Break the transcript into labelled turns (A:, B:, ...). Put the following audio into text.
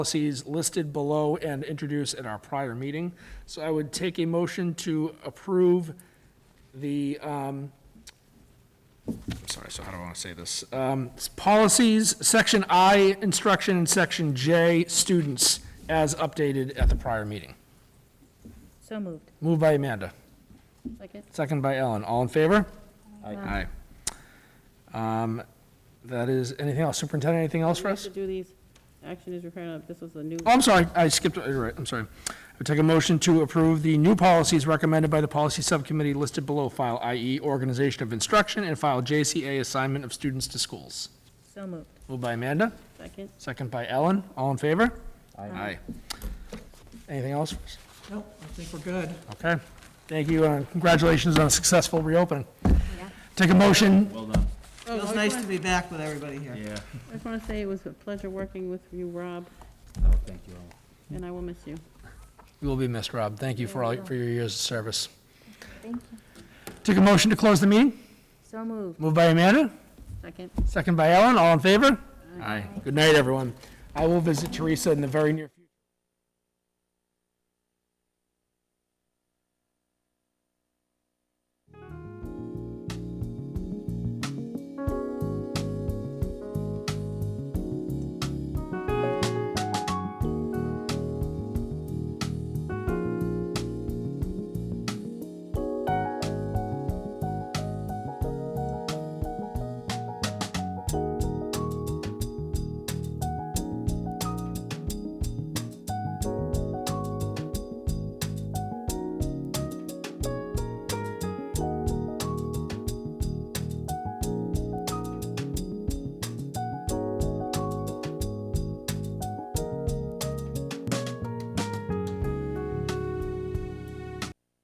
A: policies listed below and introduced at our prior meeting. So I would take a motion to approve the, um, I'm sorry, so how do I want to say this? Um, s- Policies, Section I, Instruction, and Section J, Students, as updated at the prior meeting.
B: So moved.
A: Moved by Amanda,
B: Second?
A: second by Ellen. All in favor?
C: Uh,
A: Aye. Um, That is, anything else? Superintendent, anything else for us?
C: To do these, action is required, on- this was the new,
A: Oh, I'm sorry, I skipped, you're right, I'm sorry. I would take a motion to approve the new policies recommended by the policy subcommittee listed below file, i.e. organization of instruction, and file JCA assignment of students to schools.
B: So moved.
A: Moved by Amanda,
C: second,
A: second by Ellen, all in favor?
D: Aye.
A: Anything else?
E: No, I think we're good.
A: Okay, thank you, and congratulations on a successful reopening. Take a motion,
D: Well done.
E: Feels nice to be back with everybody here.
D: Yeah.
C: I just want to say it was a pleasure working with you, Rob,
D: Oh, thank you all.
C: and I will miss you.
A: you will be missed, Rob, thank you for all, for your years of service.
B: Thank you.
A: Take a motion to close the meeting,
B: So moved.
A: moved by Amanda,
C: Second.
A: second by Ellen, all in favor? Aye. Good night, everyone. I will visit Teresa in the very near future.